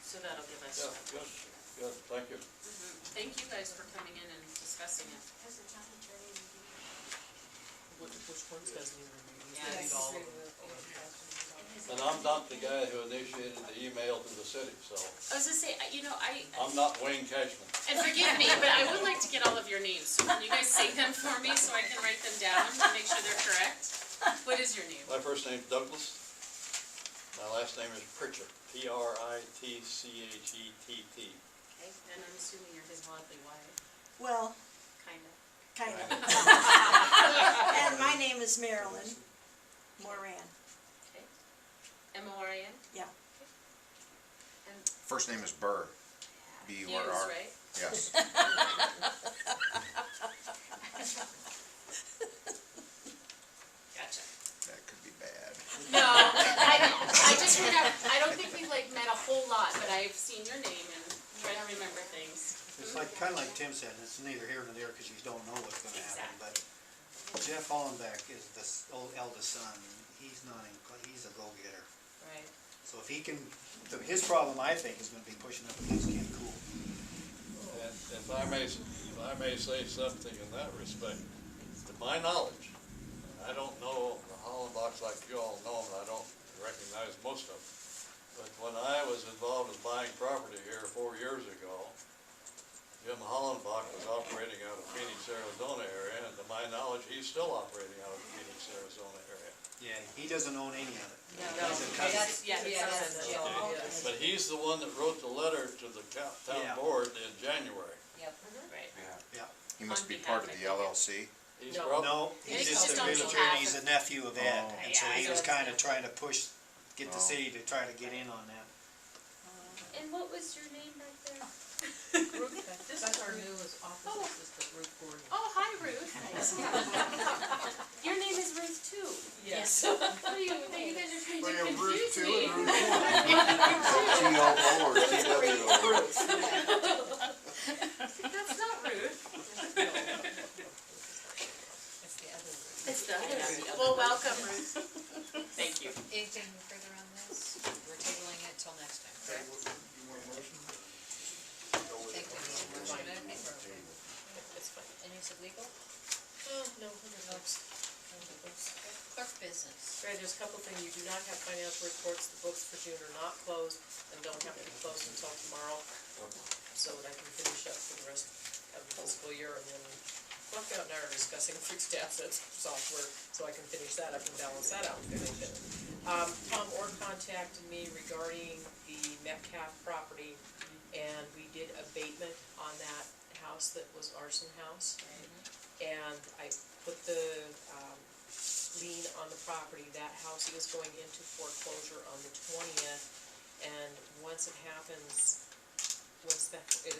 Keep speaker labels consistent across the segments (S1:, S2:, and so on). S1: so that'll give us.
S2: Yeah, good, good, thank you.
S1: Mhm. Thank you guys for coming in and discussing it.
S3: Has the town attorney reviewed?
S4: Which, which ones does he review? He's
S1: Yeah,
S4: reviewed
S1: he's
S4: all of them.
S3: Has
S2: And
S3: it-
S2: I'm not the guy who initiated the email to the city, so
S1: I was gonna say, I- you know, I,
S2: I'm not Wayne Cashman.
S1: and forgive me, but I would like to get all of your names, so can you guys say them for me so I can write them down to make sure they're correct? What is your name?
S2: My first name's Douglas. My last name is Pritchett, E P-R-I-T-C-H-E-T-T.
S1: Okay, And I'm assuming you're his lovely wife,
S5: Well,
S1: kinda.
S5: kind of. And my name is Marilyn Moran.
S1: Okay. M O R I N?
S5: Yeah.
S1: And
S6: First name is Burr. B U R
S1: Hughes,
S6: R.
S1: right?
S6: Yes.
S1: Gotcha.
S6: That could be bad.
S1: No, I, I just would have, I don't think we've like met a whole lot, but I've seen your name and try to remember things.
S7: It's like, kinda like Tim said, it's neither here nor there, cause you don't know what's gonna happen, but Jeff Hollenbeck is the s- old eldest son, he's not, in- he's a go-getter.
S1: Right.
S7: So if he can, the- his problem, I think, is gonna be pushing up against Ken Cool.
S2: And if I may, if I may say something in that respect, to my knowledge, I don't know the Hollenbachs like you all know, and I don't recognize most of them. But when I was involved in buying property here four years ago, Jim Hollenbach was operating out of Phoenix, Arizona area, and to my knowledge, he's still operating out of Phoenix, Arizona area.
S7: Yeah, he doesn't own any of it.
S1: No,
S7: He's a cousin.
S1: that's, yeah,
S3: Yeah,
S1: that's,
S3: that's Jeff.
S1: yeah.
S2: But he's the one that wrote the letter to the co- town
S7: Yeah.
S2: board in January.
S3: Yep.
S1: Right.
S7: Yeah.
S6: He
S1: On
S6: must be
S1: behalf,
S6: part of
S1: I
S6: the
S1: think.
S6: LLC.
S2: He's
S1: No.
S2: prob-
S7: No,
S1: Yeah,
S7: he's
S1: he's
S7: just
S1: just
S7: a
S1: on
S7: realtor,
S1: behalf
S7: and he's
S1: of-
S7: a nephew of Ed,
S6: Oh.
S7: and so
S1: Yeah,
S7: he
S1: so
S7: was
S1: it's-
S7: kinda trying to push, get
S6: Oh.
S7: the city to try to get in on that.
S1: And what was your name back there?
S4: That's our newest office, this is the group Gordon.
S1: Oh, hi Ruth. Your name is Ruth too.
S4: Yes.
S1: What are you, you guys are trying
S8: We
S1: to
S8: have Ruth
S1: confuse
S8: two
S1: me.
S8: and Ruth four. T O O or T W O.
S1: That's not Ruth.
S3: That's the other one.
S1: It's the, well, welcome Ruth. Thank you.
S3: Anything further on this? We're tabling it till next time, correct?
S8: You want a motion?
S3: I think we need a motion, I think we're okay. And is it legal? No,
S9: No,
S3: it's- no legals. Clerk business.
S9: Right, there's a couple things, you do not have financial reports, the books for June are not closed, and don't have to be closed until tomorrow, so that I can finish up for the rest of the fiscal year, and then Buckout and I are discussing fixed assets software, so I can finish that up and balance that out, because I did. Um, Tom Orr contacted me regarding the Metcalf property, and we did abatement on that house that was arson house. And I put the, um, lien on the property. That house is going into foreclosure on the twentieth, and once it happens, once that, it,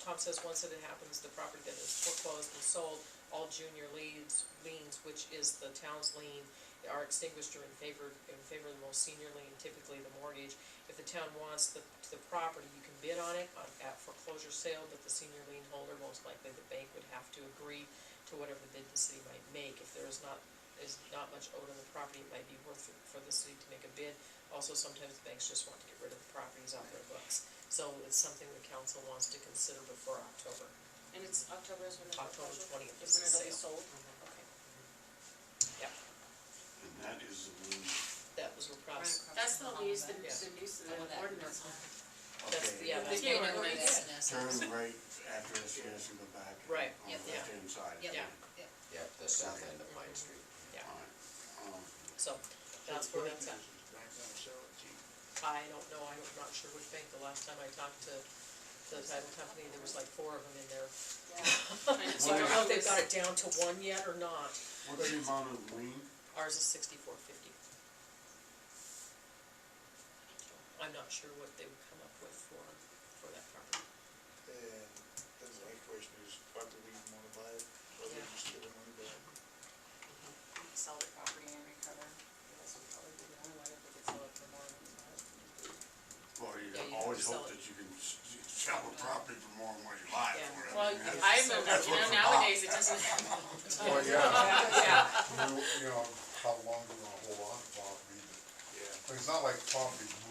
S9: Tom says once it happens, the property that is foreclosed and sold, all junior liens, liens, which is the town's lien, are extinguished or in favor, in favor of the most senior lien, typically the mortgage. If the town wants the, the property, you can bid on it on- at foreclosure sale, but the senior lien holder, most likely the bank, would have to agree to whatever bid the city might make. If there is not, is not much owed on the property, it might be worth it for the city to make a bid. Also, sometimes banks just want to get rid of the properties off their books. So it's something the council wants to consider before October.
S1: And it's October is when the.
S9: October
S1: foreclosure-
S9: 20th
S1: Is when
S9: is the
S1: it'll be
S9: sale.
S1: sold? Okay.
S8: And that is the one.
S9: That was repressed.
S1: That's the lease, the,
S9: Yes.
S1: the lease of
S3: I want
S1: the
S3: that.
S1: ordinance.
S9: That's, yeah,
S3: That's
S9: that's,
S1: Yeah.
S3: the
S1: one.
S3: other one, that's an essence.
S8: Turn right after this, you have to go back.
S9: Right.
S8: On
S3: Yep.
S8: the left-hand side.
S3: Yep.
S9: yeah,
S6: Yep, the south end of Pine Street.
S9: yeah.
S8: All right. Um,
S9: So that's where that's at.
S8: Back down to Sarah G.
S9: I don't know, I'm not sure which bank. The last time I talked to the title company, there was like four of them in there.
S1: Trying to
S9: So I don't
S1: figure
S9: know
S1: out
S9: if they've
S1: this-
S9: got it down to one yet or not.
S8: What's the amount of lien?
S9: Ours is sixty-four fifty. I'm not sure what they would come up with for, for that property.
S10: And then the other question is, why do we want to buy it, or they just give it money back?
S1: Sell the property and recover. That's probably the only way if we could sell it for more than that.
S8: Well, you
S9: Yeah, you have
S8: always
S9: to sell
S8: hope
S9: it.
S8: that you can s- s- sell a property for more than what you buy
S9: Yeah.
S8: for it.
S1: Well,
S8: I mean, that's-
S1: I'm, a-
S8: that's
S1: you
S8: what's
S1: know,
S8: about.
S1: nowadays it doesn't.
S8: Well, Oh, yeah,
S1: Yeah.
S8: you know, you know, how long do you want to hold on to property? but-
S10: Yeah.
S8: But it's not like property